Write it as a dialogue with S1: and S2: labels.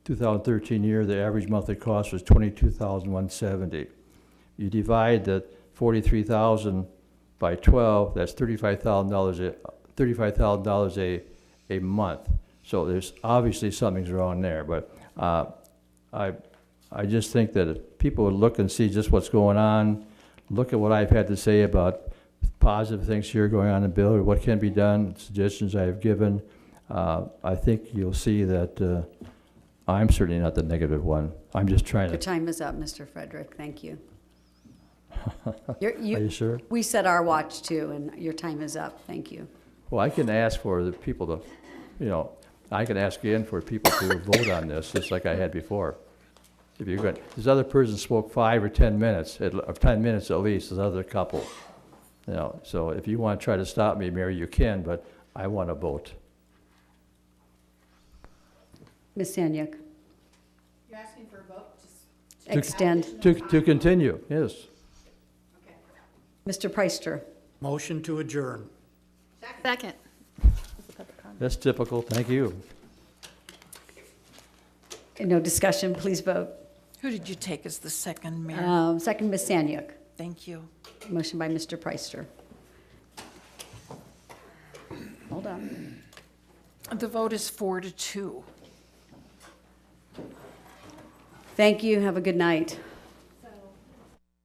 S1: 2013 year, the average monthly cost was 22,170. You divide the 43,000 by 12, that's $35,000, a- $35,000 a, a month. So there's, obviously something's wrong there, but uh, I, I just think that if people would look and see just what's going on, look at what I've had to say about positive things here going on in Bill, or what can be done, suggestions I have given, uh, I think you'll see that uh, I'm certainly not the negative one. I'm just trying
S2: Your
S1: to,
S2: time is up, Mr. Frederick. Thank you. You're-
S1: are
S2: you-
S1: you sure?
S2: We set our watch too, and your time is up. Thank you.
S1: Well, I can ask for the people to, you know, I can ask again for people to vote on this, just like I had before. If you're good, this other person spoke five or 10 minutes, at l- or 10 minutes at least, this other couple. You know, so if you want to try to stop me, Mary, you can, but I want to vote.
S2: Ms. Sanyuk,
S3: You're asking for a vote, just,
S2: extend.
S1: To, to continue, yes.
S3: okay.
S2: Mr. Preister,
S4: Motion to adjourn.
S5: Second.
S1: That's typical, thank you.
S2: no discussion, please vote.
S6: Who did you take as the second mayor?
S2: Um, Second, Ms. Sanyuk.
S6: Thank you.
S2: Motion by Mr. Preister. Hold on.
S6: The vote is four to two.
S2: Thank you. Have a good night.